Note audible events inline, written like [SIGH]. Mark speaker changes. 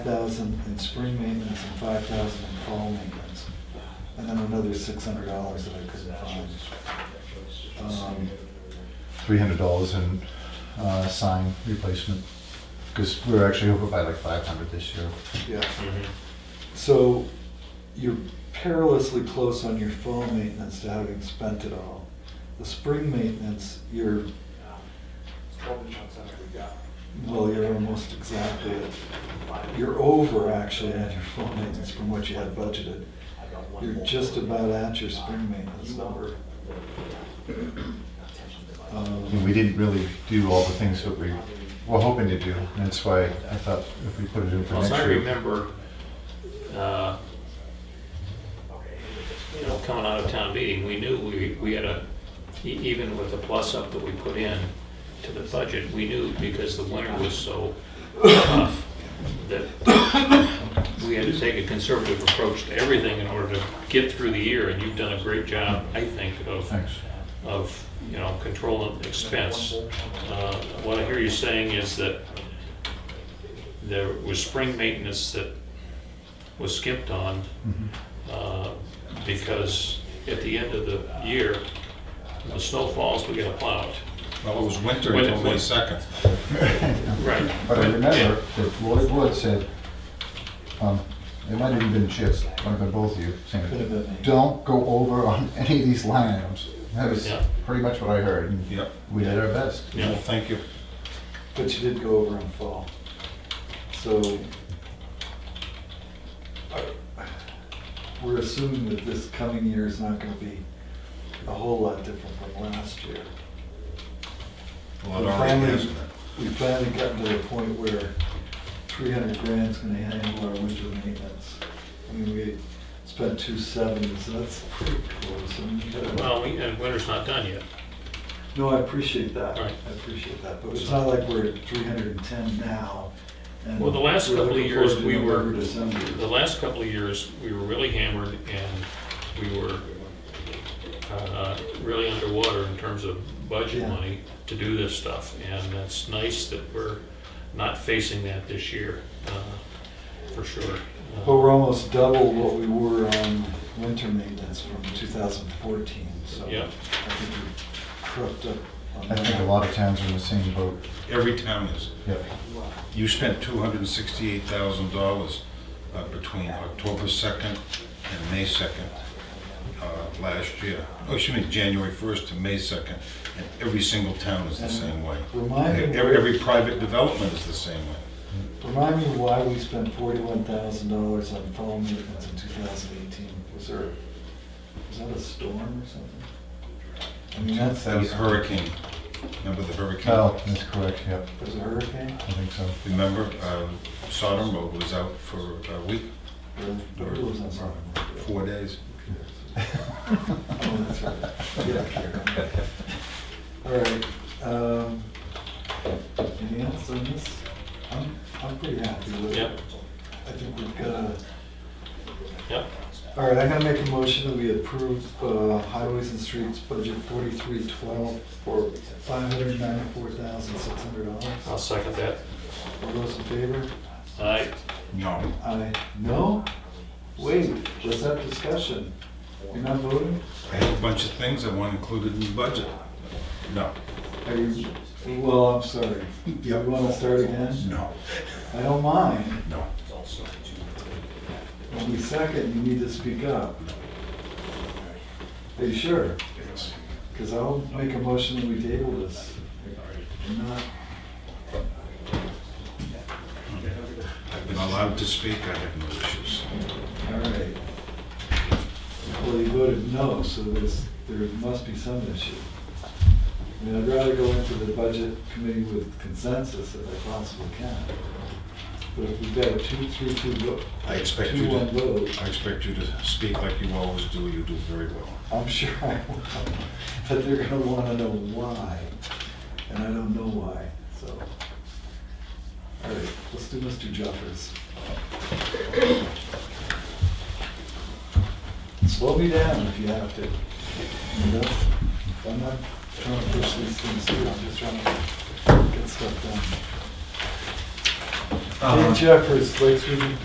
Speaker 1: thousand in spring maintenance and five thousand in fall maintenance. And then another six hundred dollars that I couldn't find. Um,
Speaker 2: three hundred dollars in uh, sign replacement because we were actually over by like five hundred this year.
Speaker 1: Yeah, so you're perilously close on your fall maintenance to having spent it all. The spring maintenance, you're, well, you're almost exactly, at- you're over actually at your fall maintenance from what you had budgeted. You're just about at your spring maintenance [LAUGHS] number.
Speaker 2: And
Speaker 1: Um,
Speaker 2: we didn't really do all the things that we were hoping to do. And that's why I thought if we put it in for
Speaker 3: Well, as
Speaker 2: next
Speaker 3: I
Speaker 2: year,
Speaker 3: remember, uh, you know, coming out of town meeting, we knew we, we had a, e- even with the plus up that we put in to the budget, we knew because the winter was so tough that we had to take a conservative approach to everything in order to get through the year, and you've done a great job, I think, of
Speaker 2: thanks.
Speaker 3: of, you know, control and expense. Uh, What I hear you saying is that there was spring maintenance that was skipped on
Speaker 2: Mhm.
Speaker 3: uh, because at the end of the year, when the snow falls, we get plowed.
Speaker 4: Well, it was winter
Speaker 3: Wait,
Speaker 4: until May
Speaker 3: wait.
Speaker 4: [LAUGHS] 2nd.
Speaker 3: Right.
Speaker 2: But I remember that Lloyd Wood said, um, it might have even been Chip, might have been both of you,
Speaker 1: Could have
Speaker 2: saying,
Speaker 1: been me.
Speaker 2: don't go over on [LAUGHS] any of these line items. That was
Speaker 3: Yeah.
Speaker 2: pretty much what I heard. and
Speaker 4: Yep.
Speaker 2: We did our best.
Speaker 3: Yeah.
Speaker 4: Well, thank you.
Speaker 1: But you did go over in fall. So I- we're assuming that this coming year is not gonna be a whole lot different from last year.
Speaker 4: Well, it
Speaker 1: We're
Speaker 4: already
Speaker 1: finally-
Speaker 4: is.
Speaker 1: We've finally gotten to the point where three hundred grand's gonna handle our winter maintenance. I mean, we spent two seventy, so that's pretty close. I mean, you gotta-
Speaker 3: Well, we- and winter's not done yet.
Speaker 1: No, I appreciate that.
Speaker 3: Right.
Speaker 1: I appreciate that, but it's not like we're at three hundred and ten now. and
Speaker 3: Well, the last
Speaker 1: we're
Speaker 3: couple of
Speaker 1: looking
Speaker 3: years,
Speaker 1: forward to
Speaker 3: we were-
Speaker 1: November, December.
Speaker 3: The last couple of years, we were really hammered and we were uh, really underwater in terms of budget
Speaker 1: Yeah.
Speaker 3: money to do this stuff. And that's nice that we're not facing that this year, uh, for sure. Uh,
Speaker 1: But we're almost double what we were on winter maintenance from 2014, so.
Speaker 3: Yeah.
Speaker 1: I think we crept up on
Speaker 2: I
Speaker 1: that.
Speaker 2: think a lot of towns are in the same boat.
Speaker 4: Every town is.
Speaker 2: Yep.
Speaker 4: You spent $268,000 uh, between October 2nd and May 2nd uh, last year. Oh, excuse me, January 1st to May 2nd. And every single town is the
Speaker 1: And
Speaker 4: same way.
Speaker 1: Remind me,
Speaker 4: Every, every private development is the same way.
Speaker 1: remind me why we spent $41,000 on fall maintenance in 2018. Was there, was that a storm or something? I mean, that's,
Speaker 4: That
Speaker 1: there
Speaker 4: was hurricane. Remember the hurricane?
Speaker 2: Oh, that's correct, yep,
Speaker 1: was a hurricane?
Speaker 2: I think so.
Speaker 4: Remember, um, Sodom Road was out for a week,
Speaker 1: Or- or it was on something.
Speaker 4: four days.
Speaker 1: Oh, that's right. Yeah, here. All right, um, any else on this? I'm, I'm pretty happy with it.
Speaker 3: Yep.
Speaker 1: I think we've got a,
Speaker 3: Yep,
Speaker 1: all right, I'm gonna make a motion that we approve, uh, highways and streets budget forty-three twelve for five hundred ninety-four thousand six hundred
Speaker 3: I'll
Speaker 1: dollars.
Speaker 3: second that.
Speaker 1: All those in favor?
Speaker 3: Aye.
Speaker 4: No.
Speaker 1: Aye. No? Wait, let's have discussion. You're not voting?
Speaker 4: I have a bunch of things I want included in the budget. No.
Speaker 1: Are you, well, I'm sorry. Do you wanna start again?
Speaker 4: No.
Speaker 1: I don't mind.
Speaker 4: No.
Speaker 1: Only second, you need to speak up. Are you sure?
Speaker 4: Yes.
Speaker 1: Because I'll make a motion that we table this. We're not-
Speaker 4: I've been allowed to speak, I have no issues.
Speaker 1: all right. Well, you voted no, so there's, there must be some issue. I mean, I'd rather go into the budget committee with consensus if I possibly can. But if we've got a two, three, two vote,
Speaker 4: I expect you
Speaker 1: two, one
Speaker 4: to,
Speaker 1: vote,
Speaker 4: I expect you to speak like you always do, you do very well.
Speaker 1: I'm sure I will, but they're gonna wanna know why, and I don't know why, so. All right, let's do Mr. Jeffers. Slow me down if you have to. You know, I'm not trying to push these things through, I'm just trying to get stuff done. Dave Jeffers, Lakes Region